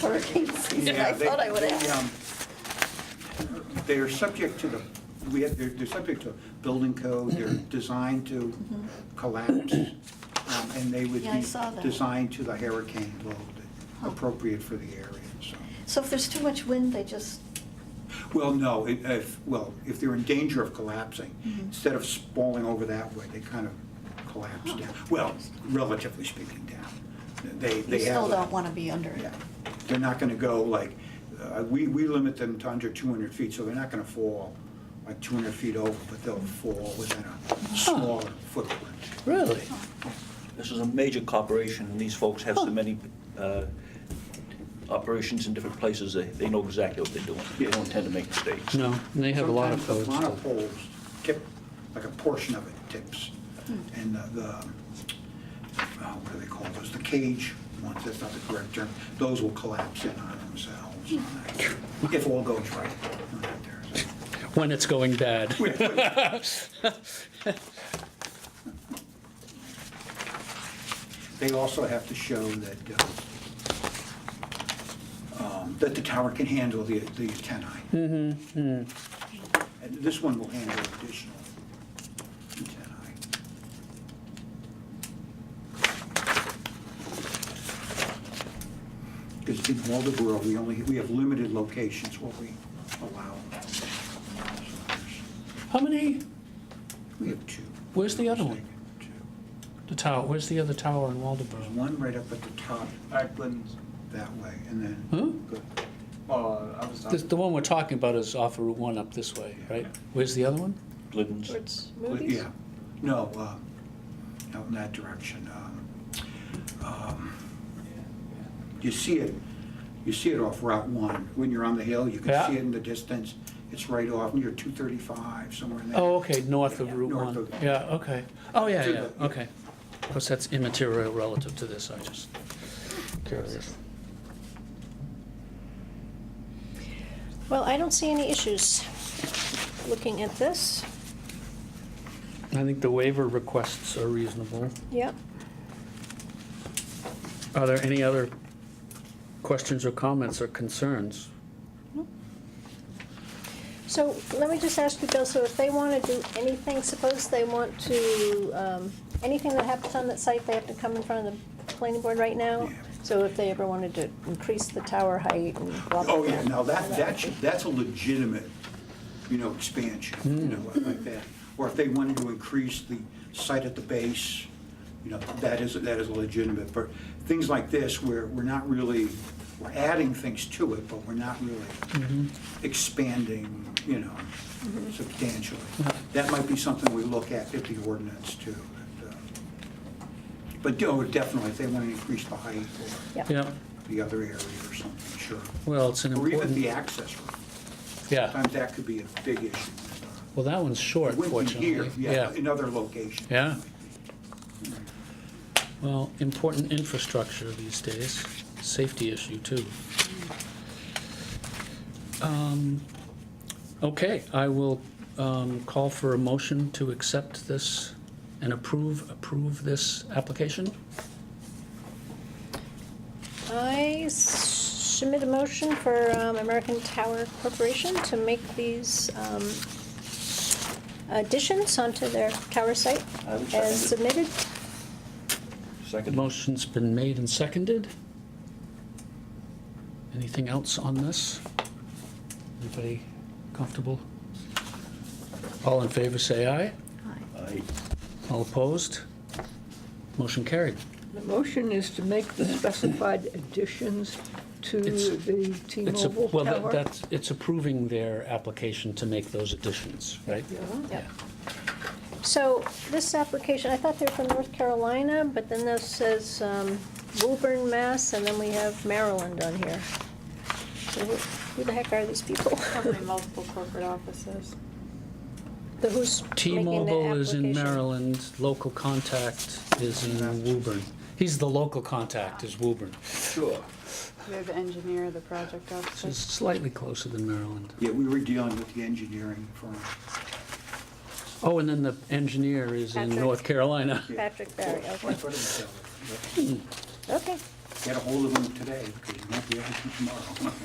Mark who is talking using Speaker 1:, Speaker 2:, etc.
Speaker 1: hurricane season,
Speaker 2: Yeah,
Speaker 1: I
Speaker 2: they-
Speaker 1: thought I would
Speaker 2: they,
Speaker 1: ask.
Speaker 2: um, They are subject to the, we have, they're, they're subject to building code, they're
Speaker 1: Mm-hmm.
Speaker 2: designed to collapse, um, and they would
Speaker 1: Yeah, I
Speaker 2: be
Speaker 1: saw that.
Speaker 2: designed to the hurricane load,
Speaker 1: Huh.
Speaker 2: appropriate for the area, so.
Speaker 1: So if there's too much wind, they just,
Speaker 2: Well, no, it- if, well, if they're in danger of collapsing,
Speaker 1: Mhm.
Speaker 2: instead of spalling over that way, they kind of collapse
Speaker 1: Huh.
Speaker 2: down. Well, relatively speaking, down. They,
Speaker 1: you
Speaker 2: they have.
Speaker 1: still
Speaker 2: a-
Speaker 1: don't want to be under it.
Speaker 2: Yeah, they're not gonna go like, uh, we, we limit them to under 200 feet, so they're not gonna fall like 200 feet over, but they'll fall within a smaller footprint.
Speaker 3: Really?
Speaker 4: This is a major corporation, and these folks have so many uh, operations in different places, they, they know exactly what they're doing. They don't tend to make mistakes.
Speaker 3: No, and they have a lot of
Speaker 2: Sometimes
Speaker 3: codes.
Speaker 2: the monopoles tip, like a portion of it tips,
Speaker 3: Hmm.
Speaker 2: and the- the, uh, what do they call those, the cage ones, that's not the correct term, those will collapse in on themselves,
Speaker 3: Hmm.
Speaker 2: if all goes right.
Speaker 3: When it's going bad.
Speaker 2: They also have to show that, uh, um, that the tower can handle the, the antennae. Mm-hmm. And this one will handle additional antennae. Because in Waldeboro, we only, we have limited locations where we allow.
Speaker 3: How many,
Speaker 2: We have two.
Speaker 3: Where's the other one?
Speaker 2: Two.
Speaker 3: the tower, where's the other tower in
Speaker 2: There's
Speaker 3: Waldeboro?
Speaker 2: one right up at the top
Speaker 5: Ackland's,
Speaker 2: that way, and then.
Speaker 3: Huh?
Speaker 2: Go-
Speaker 5: well, Uh, I was
Speaker 3: The,
Speaker 5: done.
Speaker 3: the one we're talking about is off of Route 1 up this way, right? Where's the other one?
Speaker 4: Glidden's,
Speaker 6: Towards
Speaker 2: Well,
Speaker 6: movies?
Speaker 2: Yeah, no, um, out in that direction. um, um, You see it, you see it off Route 1. When you're on the hill, you can
Speaker 3: Yeah.
Speaker 2: see it in the distance. It's right off near 235, somewhere in there.
Speaker 3: Oh, okay, north of Route
Speaker 2: North
Speaker 3: 1.
Speaker 2: of-
Speaker 3: Yeah, okay. Oh, yeah,
Speaker 2: To
Speaker 3: yeah,
Speaker 2: the-
Speaker 3: okay. Of course, that's immaterial relative to this, I just curious.
Speaker 6: Well, I don't see any issues looking at this.
Speaker 3: I think the waiver requests are reasonable.
Speaker 6: Yep.
Speaker 3: Are there any other questions or comments or concerns?
Speaker 6: So let me just ask you, Bill, so if they want to do anything, suppose they want to, um, anything that happens on that site, they have to come in front of the planning board right now?
Speaker 2: Yeah.
Speaker 6: So if they ever wanted to increase the tower height and blah, blah, blah?
Speaker 2: Oh, yeah, now that, that's, that's a legitimate, you know, expansion, you know, like that. Or if they wanted to increase the site at the base, you know, that is, that is legitimate. But things like this, where we're not really, we're adding things to it, but we're not really expanding, you know, substantially. That might be something we look at at the ordinance too. but, uh, But, oh, definitely, if they want to increase the height or
Speaker 6: Yeah.
Speaker 3: Yeah,
Speaker 2: the other area or something, sure.
Speaker 3: well, it's an
Speaker 2: Or even the
Speaker 3: important,
Speaker 2: access road.
Speaker 3: yeah.
Speaker 2: Sometimes that could be a big issue.
Speaker 3: Well, that one's short,
Speaker 2: It wouldn't be
Speaker 3: fortunately.
Speaker 2: here, yeah, in other locations.
Speaker 3: Yeah. Well, important infrastructure these days, safety issue too. Um, Okay, I will um, call for a motion to accept this and approve, approve this application.
Speaker 6: I s- submit a motion for um, American Tower Corporation to make these um, additions onto their tower site
Speaker 4: I would second it.
Speaker 6: as submitted.
Speaker 3: The
Speaker 4: second.
Speaker 3: motion's been made and seconded. Anything else on this? Anybody comfortable? All in favor, say aye.
Speaker 4: I-
Speaker 3: All opposed? Motion carried.
Speaker 7: The motion is to make the specified additions to
Speaker 3: It's-
Speaker 7: the
Speaker 3: It's a-
Speaker 7: T-Mobile
Speaker 3: Well, that-
Speaker 7: tower.
Speaker 3: that's, it's approving their application to make those additions, right?
Speaker 6: Yep. So this application, I thought they were from North Carolina, but then this says um, Woburn, Mass, and then we have Maryland on here. So who who the heck are these people?
Speaker 8: Probably multiple corporate offices.
Speaker 6: The who's making the
Speaker 3: T-Mobile is in
Speaker 6: application?
Speaker 3: Maryland, local contact is in Woburn. He's the local contact, is Woburn,
Speaker 2: Sure.
Speaker 8: They're the engineer, the project
Speaker 3: which is
Speaker 8: officer.
Speaker 3: slightly closer than Maryland.
Speaker 2: Yeah, we were dealing with the engineering firm.
Speaker 3: Oh, and then the engineer is in
Speaker 6: Patrick.
Speaker 3: North Carolina.
Speaker 6: Patrick Barry, okay,
Speaker 2: What did we tell them?
Speaker 6: okay.
Speaker 2: Get a hold of him today, because you won't be able to tomorrow.